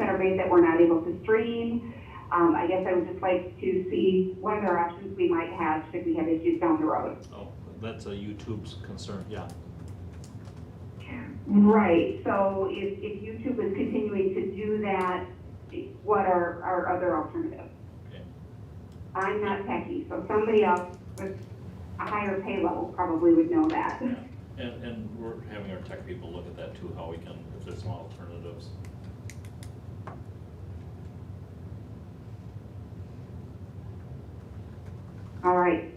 frustrated that we're not able to stream. Um, I guess I would just like to see what other options we might have should we have issues down the road. Oh, that's a YouTube's concern, yeah. Right, so if, if YouTube is continuing to do that, what are our other alternatives? Okay. I'm not techie, so somebody else with a higher pay level probably would know that. And, and we're having our tech people look at that too, how we can, if there's some alternatives. All right,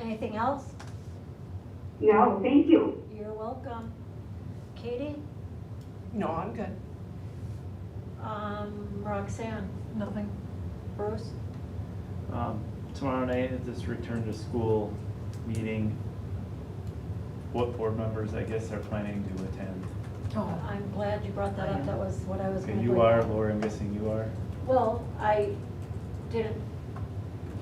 Anything else? no, thank you. You're welcome. Katie? No, I'm good. Um, Roxanne? Nothing. Bruce? Um, tomorrow night at this return to school meeting, what board members, I guess, are planning to attend? Oh, I'm glad you brought that up. That was what I was Okay, gonna You bring are, up. Laura, I'm guessing you are. Well, I didn't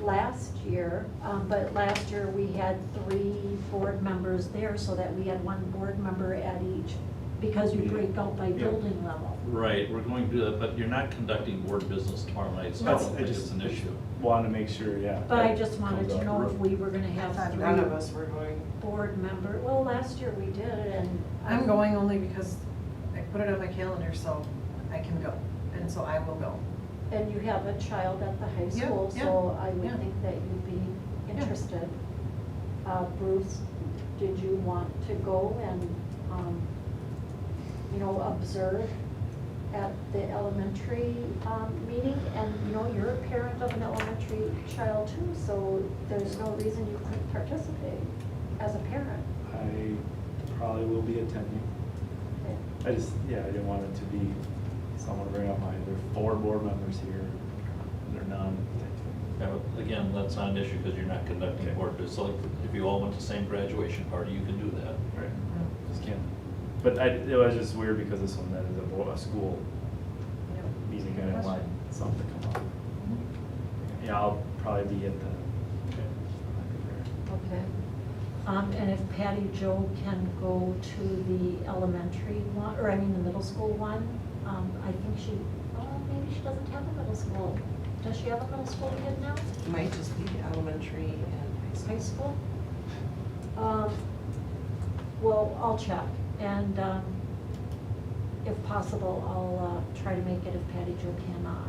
last year, um, but last year we had three board members there so that we had one board member at each because you break out by Yeah. building level. Right, we're going to do that, but you're not conducting board business tomorrow night, so I No. don't think it's an issue. Want to make sure, yeah. But I just wanted Comes to out know if rough. we were gonna I have thought none of three us were going. board member, well, last year we did and. I'm going only because I put it on my calendar, so I can go, and so I will go. And you have a child at the high Yeah, school, yeah, so I yeah. would think that you'd be interested. Uh, Bruce, did you want to go and, um, you know, observe at the elementary, um, meeting? And, you know, you're a parent of an elementary child too, so there's no reason you couldn't participate as a parent. I probably will be attending. I just, yeah, I didn't want it to be someone bring up my, there are four board members here, and they're none. Yeah, but Again, that's not an issue because you're not conducting Okay. board business. Like, if you all went to the same graduation party, you can do that. Right. Just can't. But I, it was just weird because this one, that is a, bo- a school meeting, I didn't want something to come up. Mm-hmm. Yeah, I'll probably be at the. Okay. Um, and if Patty Jo can go to the elementary one, or I mean the middle school one, um, I think she, oh, maybe she doesn't have a middle school. Does she have a middle school kid now, Might just be elementary and high school? Um, well, I'll check, and, um, if possible, I'll, uh, try to make it if Patty Jo cannot.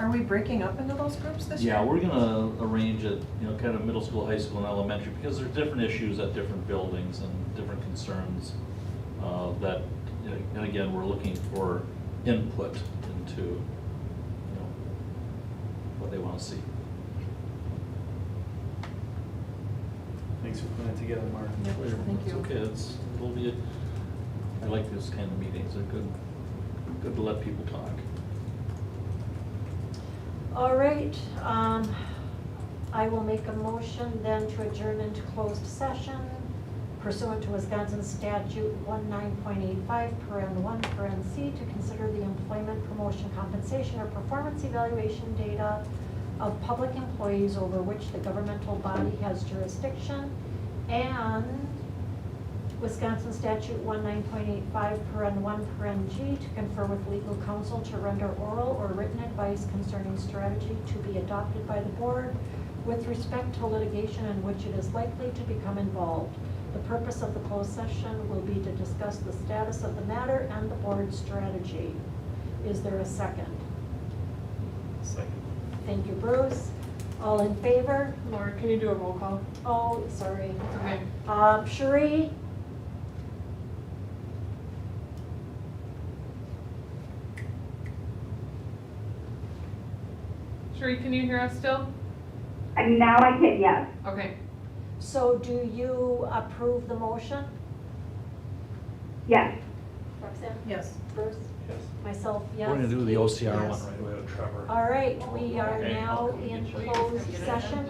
Are we breaking up into those groups this year? Yeah, we're gonna arrange it, you know, kind of middle school, high school, and elementary, because there are different issues at different buildings and different concerns uh, that, you know, and again, we're looking for input into, you know, what they want to see. Thanks for putting it together, Mark. Yep, thank It's you. okay, it's, it'll be, I like this kind of meetings, they're good, good to let people talk. All right, um, I will make a motion then to adjourn into closed session pursuant to Wisconsin statute one nine point eight five, paren one, paren C, to consider the employment, promotion, compensation, or performance evaluation data of public employees over which the governmental body has jurisdiction, and Wisconsin statute one nine point eight five, paren one, paren G, to confer with legal counsel to render oral or written advice concerning strategy to be adopted by the board with respect to litigation in which it is likely to become involved. The purpose of the closed session will be to discuss the status of the matter and the board's strategy. Is there a second? Second. Thank you, Bruce. All in favor? Laura, can you do a roll call? Oh, sorry. Okay. Um, Sheree? Sheree, can you hear us still? And now I can, yes. Okay. So do you approve the motion? Yes. Roxanne? Yes. Bruce? Yes. Myself, yes. We're gonna do the Keith? OCR Yes. one right away with Trevor. All right, we are Okay. now in closed session.